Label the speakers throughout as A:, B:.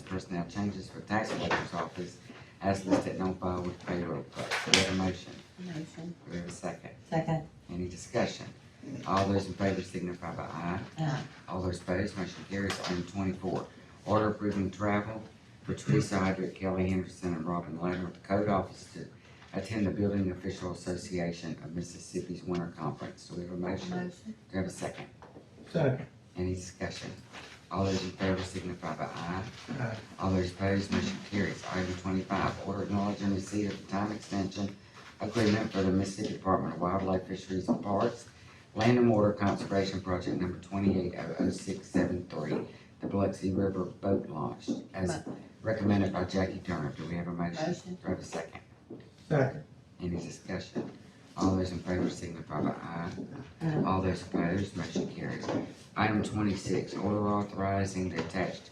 A: personnel changes for tax collector's office as listed on file with payroll clerk. Do we have a motion?
B: Motion.
A: Do we have a second?
B: Second.
A: Any discussion? All those in favor signify by aye.
B: Aye.
A: All those opposed, motion carries. Item twenty-four, order approving travel for Teresa Hydrick, Kelly Henderson, and Robin Leonard with the code office to attend the Building Official Association of Mississippi's Winter Conference. Do we have a motion?
B: Motion.
A: Do we have a second?
C: Second.
A: Any discussion? All those in favor signify by aye.
C: Aye.
A: All those opposed, motion carries. Item twenty-five, order acknowledging receipt of the time extension agreement for the Mississippi Department of Wildlife, Fisheries and Parks, Land and Water Conservation Project Number twenty-eight oh oh six seven three, the Biloxi River Boat Launch, as recommended by Jackie Turner. Do we have a motion?
B: Motion.
A: Do we have a second?
C: Second.
A: Any discussion? All those in favor signify by aye.
B: Aye.
A: All those opposed, motion carries. Item twenty-six, order authorizing the attached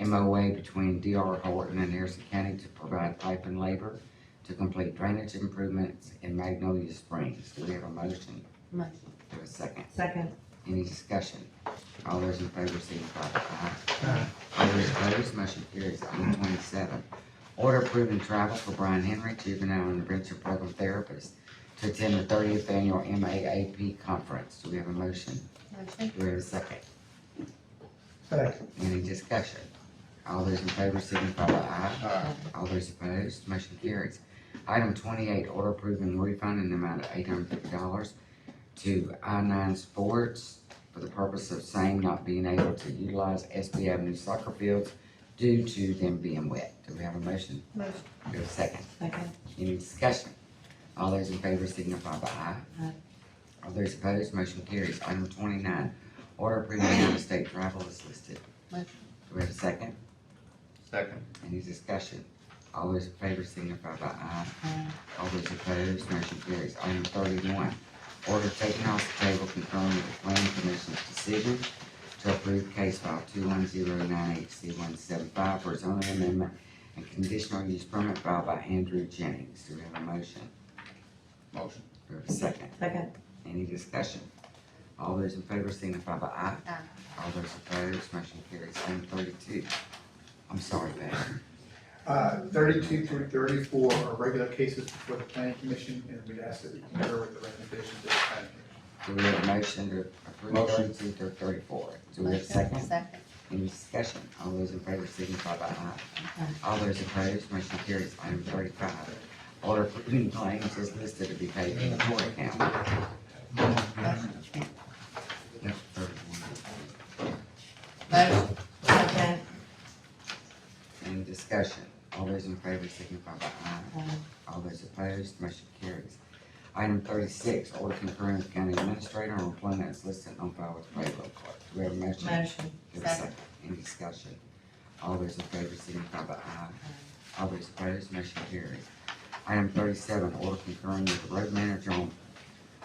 A: MOA between DR Horton and Harrison County to provide pipe and labor to complete drainage improvements in Magnolia Springs. Do we have a motion?
B: Motion.
A: Do we have a second?
B: Second.
A: Any discussion? All those in favor signify by aye.
C: Aye.
A: All those opposed, motion carries. Item twenty-seven, order approving travel for Brian Henry, juvenile intervention program therapist, to attend the thirtieth annual MAAP conference. Do we have a motion?
B: Motion.
A: Do we have a second?
C: Second.
A: Any discussion? All those in favor signify by aye.
C: Aye.
A: All those opposed, motion carries. Item twenty-eight, order approving refund in the amount of eight hundred fifty dollars to I nine Sports for the purpose of same not being able to utilize SB Avenue soccer fields due to them being wet. Do we have a motion?
B: Motion.
A: Do we have a second?
B: Second.
A: Any discussion? All those in favor signify by aye.
B: Aye.
A: All those opposed, motion carries. Item twenty-nine, order approving real estate travel is listed.
B: Motion.
A: Do we have a second?
D: Second.
A: Any discussion? All those in favor signify by aye.
B: Aye.
A: All those opposed, motion carries. Item thirty-one, order taken off the table confirming the planning commission's decision to approve case file two one zero nine eight C one seven five for zoning amendment and conditional use permit filed by Andrew Jennings. Do we have a motion?
D: Motion.
A: Do we have a second?
B: Second.
A: Any discussion? All those in favor signify by aye.
B: Aye.
A: All those opposed, motion carries. Item thirty-two, I'm sorry, Pat.
C: Uh, thirty-two through thirty-four are regular cases before the planning commission, and we'd ask that you concur with the recommendations of the planning commission.
A: Do we have a motion to approve
D: Motion.
A: thirty-two through thirty-four? Do we have a
B: Motion.
A: second?
B: Second.
A: Any discussion? All those in favor signify by aye.
B: Aye.
A: All those opposed, motion carries. Item thirty-five, order approving claims is listed to be paid in the court account. No, 31. Uh,
B: Motion. Second.
A: Any discussion? All those in favor signify by aye.
B: Aye.
A: All those opposed, motion carries. Item thirty-six, order concurring with county administrator on employment as listed on file with payroll clerk. Do we have a motion?
B: Motion.
A: Give a second.
B: Second.
A: Any discussion? All those in favor signify by aye. All those opposed, motion carries. Item thirty-seven, order concurring with the road manager on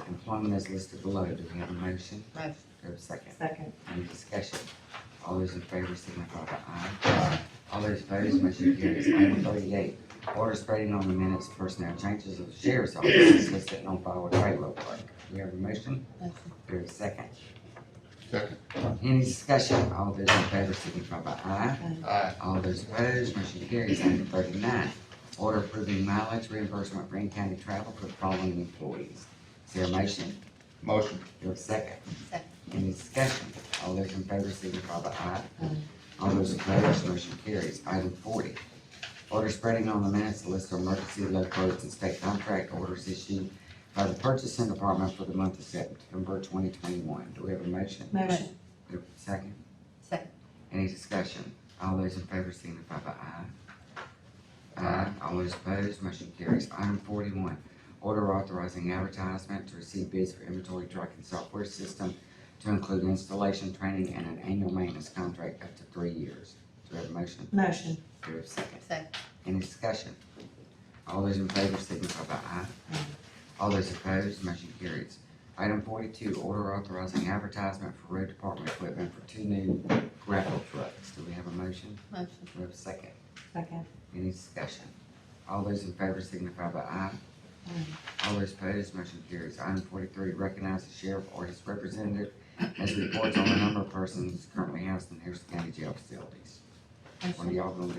A: employment as listed below. Do we have a motion?
B: Motion.
A: Do we have a second?
B: Second.
A: Any discussion? All those in favor signify by aye. All those opposed, motion carries. Item thirty-eight, order spreading on the minutes personnel changes of the sheriff's office as listed on file with payroll clerk. Do we have a motion?
B: Motion.
A: Do we have a second?
D: Second.
A: Any discussion? All those in favor signify by aye.
B: Uh,
D: Aye.
A: All those opposed, motion carries. Item thirty-nine, order approving mileage reimbursement for in-county travel for the following employees. Is there a motion?
D: Motion.
A: Do we have a second?
B: Second.
A: Any discussion? All those in favor signify by aye.
B: Aye.
A: All those opposed, motion carries. Item forty, order spreading on the minutes the list of emergency low quotes and state contract orders issued by the purchasing department for the month of September twenty twenty-one. Do we have a motion?
B: Motion.
A: Do we have a Second?
B: Second.
A: Any discussion? All those in favor signify by aye. Aye. All those opposed, motion carries. Item forty-one, order authorizing advertisement to receive bids for inventory tracking software system to include installation, training, and an annual maintenance contract up to three years. Do we have a motion?
B: Motion.
A: Do we have a second?
B: Second.
A: Any discussion? All those in favor signify by aye.
B: Aye.
A: All those opposed, motion carries. Item forty-two, order authorizing advertisement for road department equipment for two new grapple trucks. Do we have a motion?
B: Motion.
A: Do we have a second?
B: Second.
A: Any discussion? All those in favor signify by aye.
B: Uh,
A: All those opposed, motion carries. Item forty-three, recognize the sheriff or his representative as reports on the number of persons currently housed in Harrison County Jail facilities.
B: Uh,
A: One of y'all gonna